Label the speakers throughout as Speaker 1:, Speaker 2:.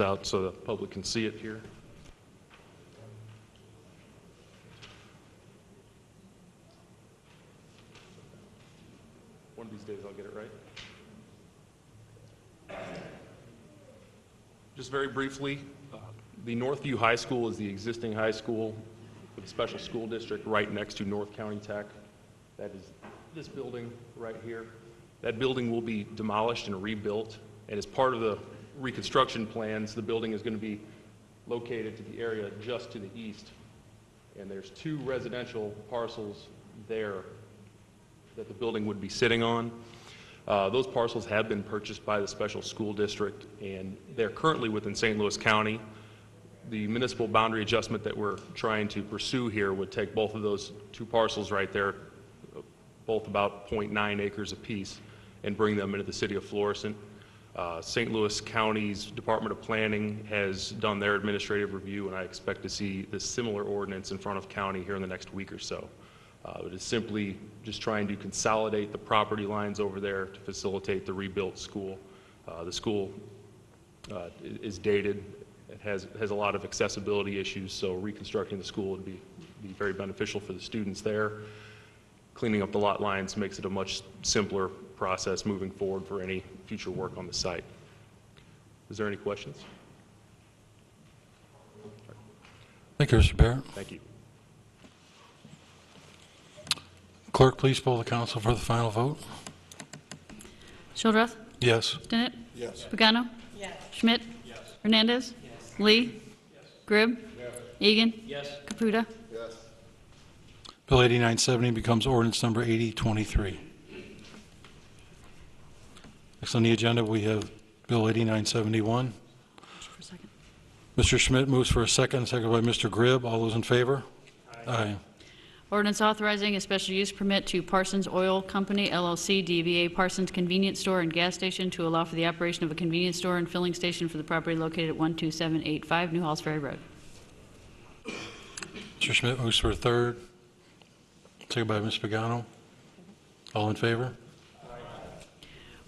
Speaker 1: It's out so the public can see it here. One of these days I'll get it right. Just very briefly, uh, the Northview High School is the existing high school with a special school district right next to North County Tech. That is this building right here. That building will be demolished and rebuilt, and as part of the reconstruction plans, the building is going to be located to the area just to the east. And there's two residential parcels there that the building would be sitting on. Uh, Those parcels have been purchased by the special school district, and they're currently within St. Louis County. The municipal boundary adjustment that we're trying to pursue here would take both of those two parcels right there, both about .9 acres apiece, and bring them into the city of Florissant. Uh, St. Louis County's Department of Planning has done their administrative review, and I expect to see this similar ordinance in front of county here in the next week or so. Uh, It is simply just trying to consolidate the property lines over there to facilitate the rebuilt school. Uh, The school uh, i- is dated, it has, has a lot of accessibility issues, so reconstructing the school would be, be very beneficial for the students there. Cleaning up the lot lines makes it a much simpler process moving forward for any future work on the site. Is there any questions?
Speaker 2: Thank you, Mr. Barrett.
Speaker 1: Thank you.
Speaker 2: Clerk, please poll the council for the final vote.
Speaker 3: Shildroth.
Speaker 2: Yes.
Speaker 3: Stinnett. Yes. Pagano. Yes. Schmidt. Yes. Hernandez. Yes. Lee. Yes. Gribb. Yes. Egan. Yes. Caputa.
Speaker 2: Bill 8970 becomes ordinance number 8023. Next on the agenda, we have Bill 8971.
Speaker 3: For a second.
Speaker 2: Mr. Schmidt moves for a second, seconded by Mr. Gribb. All those in favor? Aye.
Speaker 3: Ordinance authorizing a special use permit to Parsons Oil Company LLC, DBA Parsons Convenience Store and Gas Station to allow for the operation of a convenience store and filling station for the property located at 12785 New Halls Ferry Road.
Speaker 2: Mr. Schmidt moves for a third, seconded by Ms. Pagano. All in favor?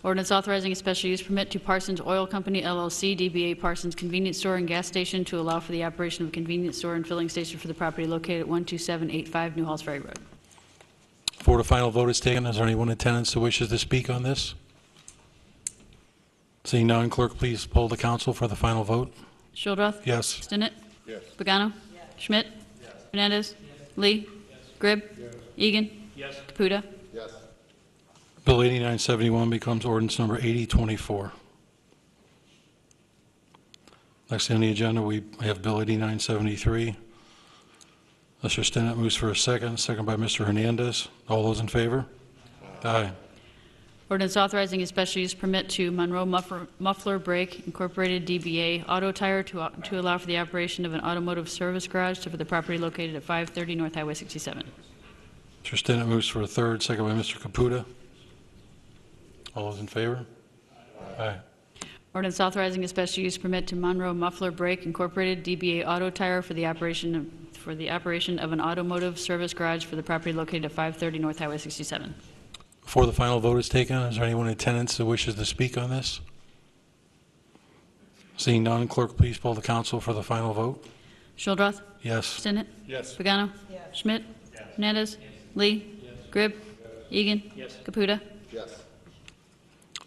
Speaker 3: Ordinance authorizing a special use permit to Parsons Oil Company LLC, DBA Parsons Convenience Store and Gas Station to allow for the operation of a convenience store and filling station for the property located at 12785 New Halls Ferry Road.
Speaker 2: Before the final vote is taken, is there anyone in attendance who wishes to speak on this? Seeing none, clerk, please poll the council for the final vote.
Speaker 3: Shildroth.
Speaker 2: Yes.
Speaker 3: Stinnett. Yes. Pagano. Schmidt. Hernandez. Lee. Gribb. Egan. Caputa.
Speaker 2: Bill 8971 becomes ordinance number 8024. Next on the agenda, we have Bill 8973. Mr. Stinnett moves for a second, second by Mr. Hernandez. All those in favor? Aye.
Speaker 3: Ordinance authorizing a special use permit to Monroe Muffler- Muffler Brake Incorporated DBA Auto Tire to au- to allow for the operation of an automotive service garage to- for the property located at 530 North Highway 67.
Speaker 2: Mr. Stinnett moves for a third, second by Mr. Caputa. All those in favor? Aye.
Speaker 3: Ordinance authorizing a special use permit to Monroe Muffler Brake Incorporated DBA Auto Tire for the operation of- for the operation of an automotive service garage for the property located at 530 North Highway 67.
Speaker 2: Before the final vote is taken, is there anyone in attendance that wishes to speak on this? Seeing none, clerk, please poll the council for the final vote.
Speaker 3: Shildroth.
Speaker 2: Yes.
Speaker 3: Stinnett. Yes. Pagano. Schmidt. Hernandez. Lee. Gribb. Egan. Caputa.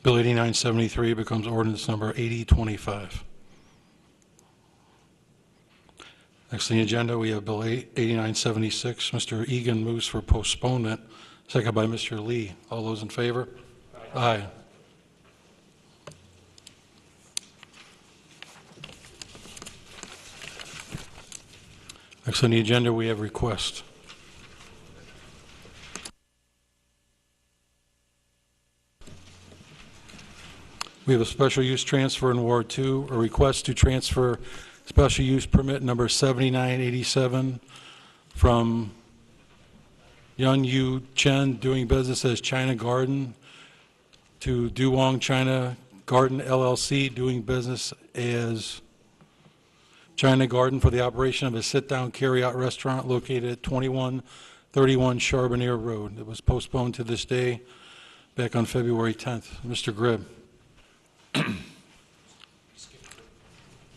Speaker 2: Bill 8973 becomes ordinance number 8025. Next on the agenda, we have Bill 8976. Mr. Egan moves for postponement, second by Mr. Lee. All those in favor? Aye. Next on the agenda, we have request. We have a special use transfer in Ward 2, a request to transfer special use permit number 7987 from Yun Yu Chen, doing business as China Garden, to Duwong China Garden LLC, doing business as China Garden for the operation of a sit-down carry-out restaurant located at 2131 Charbonneir Road. It was postponed to this day back on February 10th. Mr. Gribb.